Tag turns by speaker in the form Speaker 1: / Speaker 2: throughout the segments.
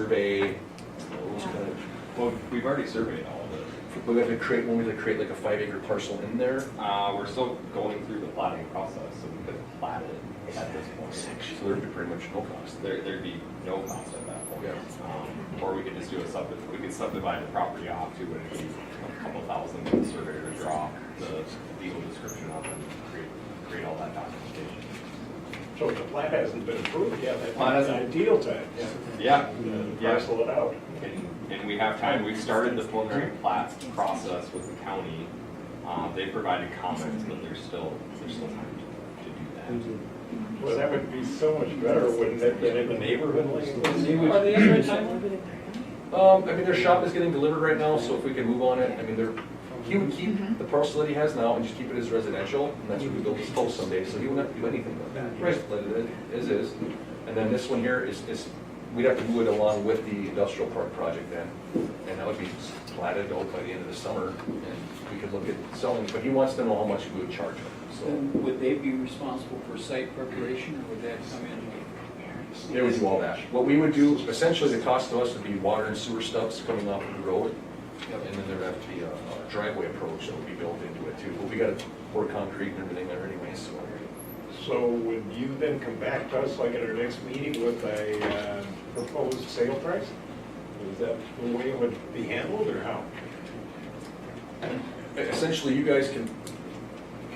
Speaker 1: survey, all those kind of,
Speaker 2: Well, we've already surveyed all of it.
Speaker 1: we have to create, when we have to create like a five acre parcel in there.
Speaker 2: Uh, we're still going through the plotting process, so we could plat it at this point.
Speaker 1: So there'd be pretty much no cost.
Speaker 2: There, there'd be no cost at that point.
Speaker 1: Yeah.
Speaker 2: Um, Or we could just do a sub, we could subdivide the property off to it, it'd be a couple thousand for the surveyor to draw the legal description of and create, create all that documentation.
Speaker 3: So the plat hasn't been approved yet, that's
Speaker 2: Plat
Speaker 3: the
Speaker 2: hasn't-
Speaker 3: ideal time.
Speaker 2: Yeah,
Speaker 3: And
Speaker 2: yeah.
Speaker 3: Parcel it out.
Speaker 2: And, and we have time, we've started the preliminary plat process with the county. Uh, they provided comments, but there's still, there's still time to, to do that.
Speaker 3: Well, that would be so much better, wouldn't it, than in the neighborhood like this?
Speaker 4: Are they in the timeline?
Speaker 1: Um, I mean, their shop is getting delivered right now, so if we can move on it, I mean, they're, he would keep the parcel that he has now and just keep it as residential, and that's where we build his house someday, so he wouldn't have to do anything with that. Right. Let it as is. And then this one here is, is, we'd have to move it along with the industrial park project then. And that would be platted out by the end of the summer, and we could look at selling, but he wants to know how much we would charge him, so.
Speaker 5: Then would they be responsible for site preparation, or would that come in?
Speaker 1: They would do all that. What we would do, essentially, the cost to us would be water and sewer stubs coming off of the road. And then there'd have to be a a driveway approach that would be built into it too. But we gotta pour concrete and everything there anyway, so.
Speaker 3: So would you then come back to us like at our next meeting with a uh, proposed sale price? Is that the way it would be handled or how?
Speaker 1: E, Essentially, you guys can,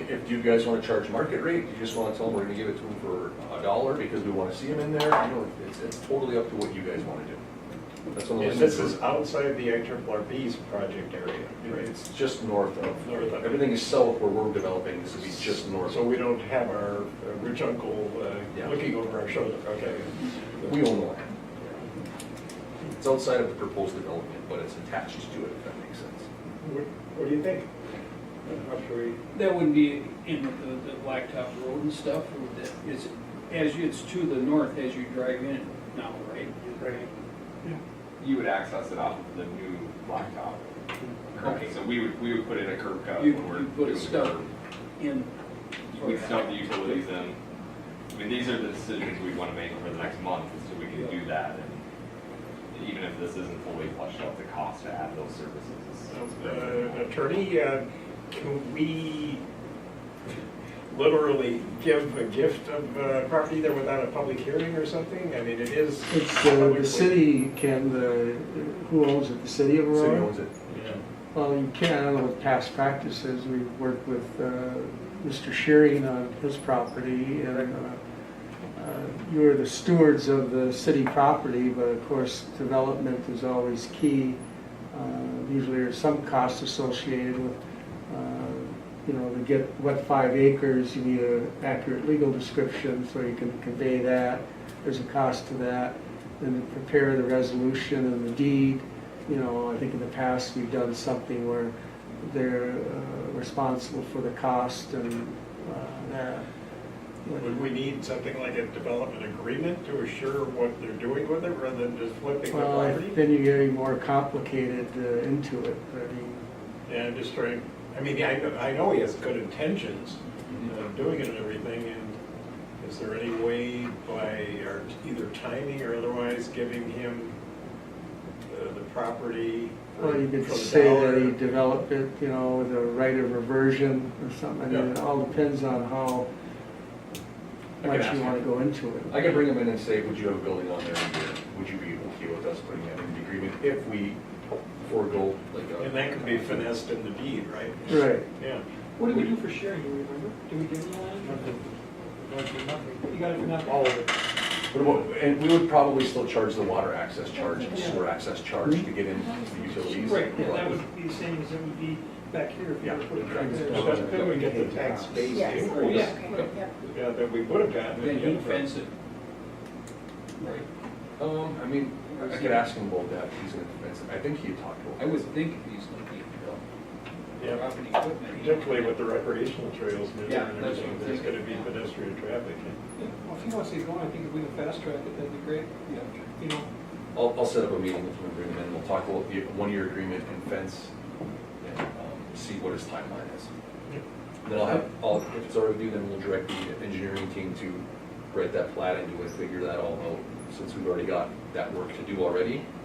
Speaker 1: if you guys wanna charge market rate, you just wanna tell them we're gonna give it to them for a dollar because we wanna see them in there. You know, it's, it's totally up to what you guys wanna do. That's one of those.
Speaker 3: And this is outside the IRRB's project area, right?
Speaker 1: It's just north of.
Speaker 3: North of.
Speaker 1: Everything is south where we're developing, this would be just north.
Speaker 3: So we don't have our uh, rich uncle uh,
Speaker 1: Yeah.
Speaker 3: looking over our shoulder, okay?
Speaker 1: We own the land. It's outside of the proposed development, but it's attached to it, if that makes sense.
Speaker 3: What what do you think? How should we?
Speaker 5: That wouldn't be in the, the blacktop road and stuff, or would that, is, as you, it's to the north as you drive in now, right?
Speaker 3: Right.
Speaker 2: You would access it off of the new blacktop. Okay, so we would, we would put in a curb cut.
Speaker 5: You,
Speaker 2: when we're
Speaker 5: you put a
Speaker 2: doing
Speaker 5: stub
Speaker 2: curb.
Speaker 5: in.
Speaker 2: We'd stub the utilities in. I mean, these are the decisions we want to make over the next month, so we can do that. And Even if this isn't fully flushed out, the cost to add those services is. is very
Speaker 3: Uh,
Speaker 2: minimal.
Speaker 3: Attorney, uh, can we literally give a gift of uh, property there without a public hearing or something? I mean, it is.
Speaker 6: It's uh, the city can, the, who owns it, the city of
Speaker 1: City
Speaker 6: Aurora?
Speaker 1: owns it.
Speaker 6: Well, you can, I don't know what past practice is, we've worked with uh, Mr. Shearing on his property, and uh, uh, you are the stewards of the city property, but of course, development is always key. Uh, Usually there's some cost associated with, uh, you know, to get what five acres, you need an accurate legal description, so you can convey that, there's a cost to that, and to prepare the resolution and the deed, you know, I think in the past, we've done something where they're uh, responsible for the cost and uh, that.
Speaker 3: Would we need something like a development agreement to assure what they're doing with it rather than just flipping the
Speaker 6: Well,
Speaker 3: property?
Speaker 6: then you're getting more complicated uh, into it, I mean,
Speaker 3: Yeah, I'm just trying, I mean, I, I know he has good intentions of doing it and everything, and is there any way by our either timing or otherwise giving him uh, the property?
Speaker 6: well, you could
Speaker 3: for the
Speaker 6: say
Speaker 3: dollar?
Speaker 6: that you develop it, you know, with a right of reversion or something, I mean, it all depends on how
Speaker 1: I can
Speaker 6: much
Speaker 1: ask
Speaker 6: you wanna
Speaker 1: him.
Speaker 6: go into it.
Speaker 1: I could bring them in and say, would you have a building on there in a year? Would you be okay with us putting that in the agreement if we forego like uh, a.
Speaker 3: And that could be finessed in the deed, right?
Speaker 6: Right,
Speaker 3: Yeah.
Speaker 4: What did we do for sharing, do you remember? Did we give them land? You got it for nothing. All of it.
Speaker 1: But what- And we would probably still charge the water access charge and sewer access charge to get into the utilities.
Speaker 4: Right, yeah, that would be the same as it would be back here if you were to put it back
Speaker 3: So
Speaker 4: there.
Speaker 3: that's when we get the tax base
Speaker 7: Yes.
Speaker 4: Oh,
Speaker 3: increase
Speaker 4: yeah.
Speaker 3: yeah, that we would have gotten.
Speaker 5: Then you fence it. Right.
Speaker 1: Um, I mean, I could ask him about that, he's gonna, defend it. I think he had talked about.
Speaker 5: I would think if he's looking at
Speaker 3: Yeah,
Speaker 5: property equipment. he-
Speaker 3: particularly with the recreational trails and
Speaker 5: Yeah,
Speaker 3: everything,
Speaker 5: that's what I'm
Speaker 3: there's gonna
Speaker 5: thinking,
Speaker 3: be
Speaker 5: yeah.
Speaker 3: pedestrian traffic.
Speaker 4: Well, if he wants to get going, I think if we can fast track it, that'd be great,
Speaker 5: Yeah.
Speaker 4: you know?
Speaker 1: I'll, I'll set up a meeting with him and bring him in, we'll talk about the one-year agreement and fence, and, um, see what his timeline is. Then I'll have, I'll, if it's already due, then we'll direct the engineering team to write that plat and do it, figure that all out, since we've already got that work to do already.